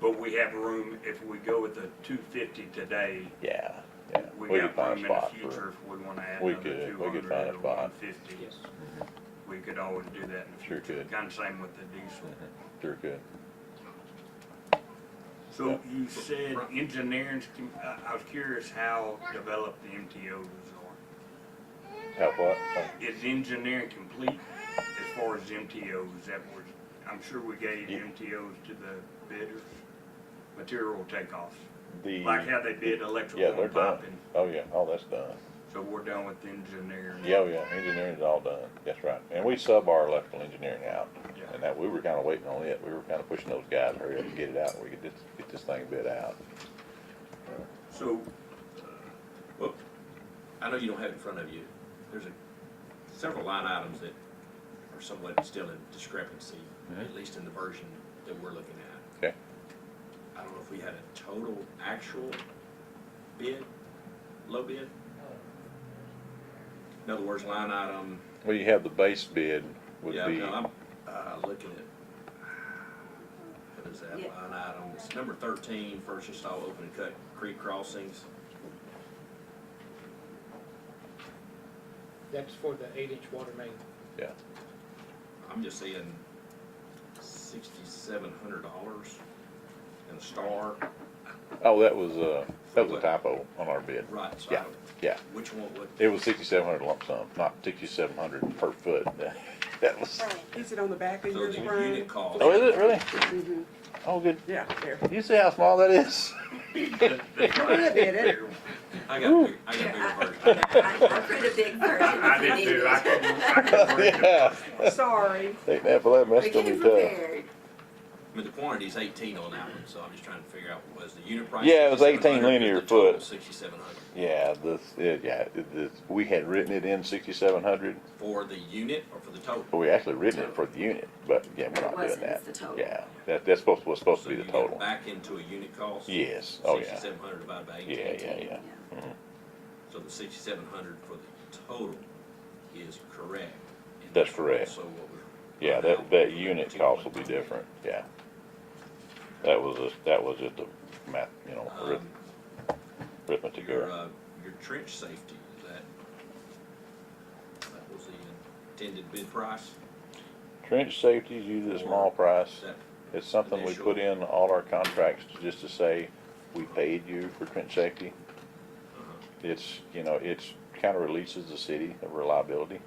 But we have room, if we go with the two fifty today, Yeah, yeah. we We got could find room a in the spot future for, if we wanna add we another could- two we could hundred find a or spot. one fifty. Yes. We could always do that in the Sure future. could. Mm-hmm. Kinda same with the diesel. sure could. So Yeah. you said engineering's, com- I, I was curious how developed the MTOs are. Have what? Uh, Is engineering complete as far as MTOs that were, I'm sure we gave Yeah. MTOs to the bidders, material takeoffs. The, Like how they bid yeah, electrical they're and done. piping. Oh, yeah, all that's done. So we're done with engineering. Yeah, oh, yeah, engineering's all done. That's right. And we sub our electrical engineering out. Yeah. And that, we were kinda waiting on it. We were kinda pushing those guys, to hurry up and get it out, and we could just get this thing bid out. So Well, I know you don't have it in front of you. There's a, several line items that are somewhat still in discrepancy, at least in the version that we're looking at. Mm-hmm. Okay. I don't know if we had a total actual bid, low bid? In other words, line item, Well, you have the base bid would yeah, be, no, I'm, uh, looking at, what is that, Yeah. line item, it's number thirteen, first install open and cut creek crossings. That's for the eight-inch water main. yeah, I'm just saying sixty-seven hundred dollars and a star. oh, that was, uh, that was a typo on our bid. Right, so I Yeah, don't- yeah. which one, what, It was sixty-seven hundred lump sum, not sixty-seven hundred per foot. That was, Is it on the back of so yours, the Brian? unit cost. oh, is it really? Mhm. Oh, good. Yeah, there. You see how small that is? Could have been it. I got, a big- I got a bigger version. I I printed a big version I if you did needed too. I it. couldn't, I couldn't read it. Yeah. Sorry. Take that for that, We're that's gonna getting be tough. prepared. I mean, the quantity's eighteen on that one, so I'm just trying to figure out, was the unit price? Yeah, it was 18 $6,700, linear the total foot. Sixty-seven hundred. Yeah, this, it, yeah, it- this, we had written it in sixty-seven hundred, For the unit or for the but total? we actually written it for the unit, but yeah, we're It not doing wasn't, that. it's the total. Yeah, that, that's supposed, was supposed to So be you the get total. Back into a unit cost? Yes, oh yeah, Sixty-seven hundred divided by eighteen. yeah, yeah, yeah. So the sixty-seven hundred for the total is correct? And That's correct. So what we're. Yeah, that, that unit cost will be different, yeah. That was, just- that was just a math, you know, arith- Um, arithmetic Your, error. uh, your trench safety, is that, that was the intended bid price? Trench safety is usually a small price. Is that, It's something we put in all our contracts just to say, we paid you for trench safety. uh-huh, It's, you know, it's kind of releases the city of reliability.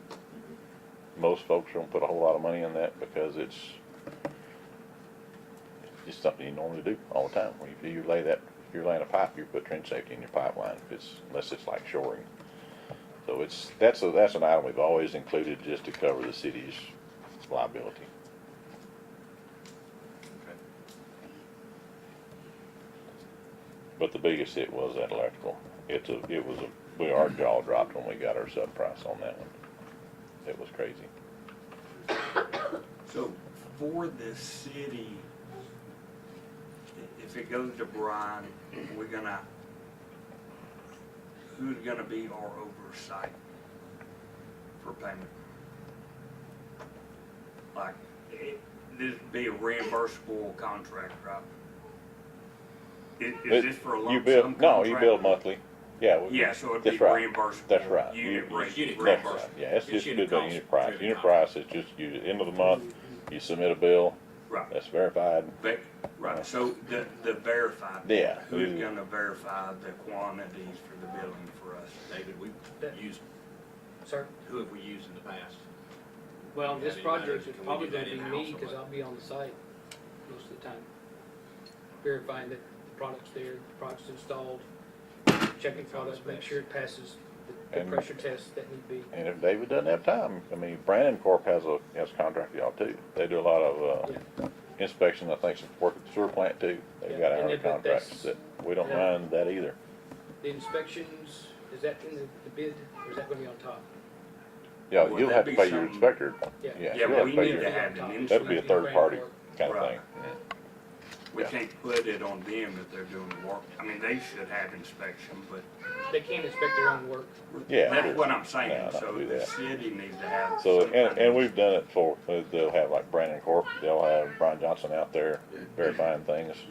Most folks don't put a whole lot of money in that because it's it's something you normally do all the time. When you, you lay that, if you're laying a pipe, you put trench safety in your pipeline, if it's, unless it's like shoring. So it's, that's a, that's an item we've always included just to cover the city's liability. okay. But the biggest hit was that electrical. It's a, it was a, we, our jaw dropped when we got our sub price on that one. It was crazy. So for the city, i- if it goes to Brian, we're gonna, who's gonna be our oversight for payment? Like, it, this'd be a reimbursable contract, right? Is, is this for a You lump bill- sum contract? No, you bill monthly. Yeah. we- Yeah, so it'd be That's right. reimbursable. That's right. Unit You- rate, unit That's reimbursable. right. Yeah, it's It's just unit good by cost, unit price. driven Unit by- price is just, you, end of the month, you submit a bill, Right. that's verified. Ve- Right, so the, the verified. Yeah. Who's gonna verify the quantities for the billing for us? David, we That- used, Sir? who have we used in the past? Well, Yeah, this I mean, project matters. is Can we probably do that gonna be in-house me, or cause what? I'll be on the site most of the time. Verifying that the product's there, the product's installed, checking product, make sure it passes the- the And- pressure tests that need be. And if David doesn't have time, I mean, Brandon Corp has a, has a contract with y'all too. They do a lot of, uh, inspection, I think, some work at the sewer plant too. They've Yeah, got and our if it- contracts that, that's- we don't yeah. run that either. The inspections, is that in the the bid, or is that gonna be on top? Yeah, Would you'll that have to be pay your some- inspector. Yeah. Yeah, Yeah, you'll have we to pay need your, to have an that'd be a inspector. third party Brand kind of Right. thing. We Yeah. can't put it on them if they're doing the work. I mean, they should have inspection, but They can't inspect their own work. Yeah, sure. that's what I'm No, saying. not So do the that. city needs to have. So, some and, kind of- and we've done it for, they'll have like Brandon Corp, they'll have Brian Johnson out there verifying things.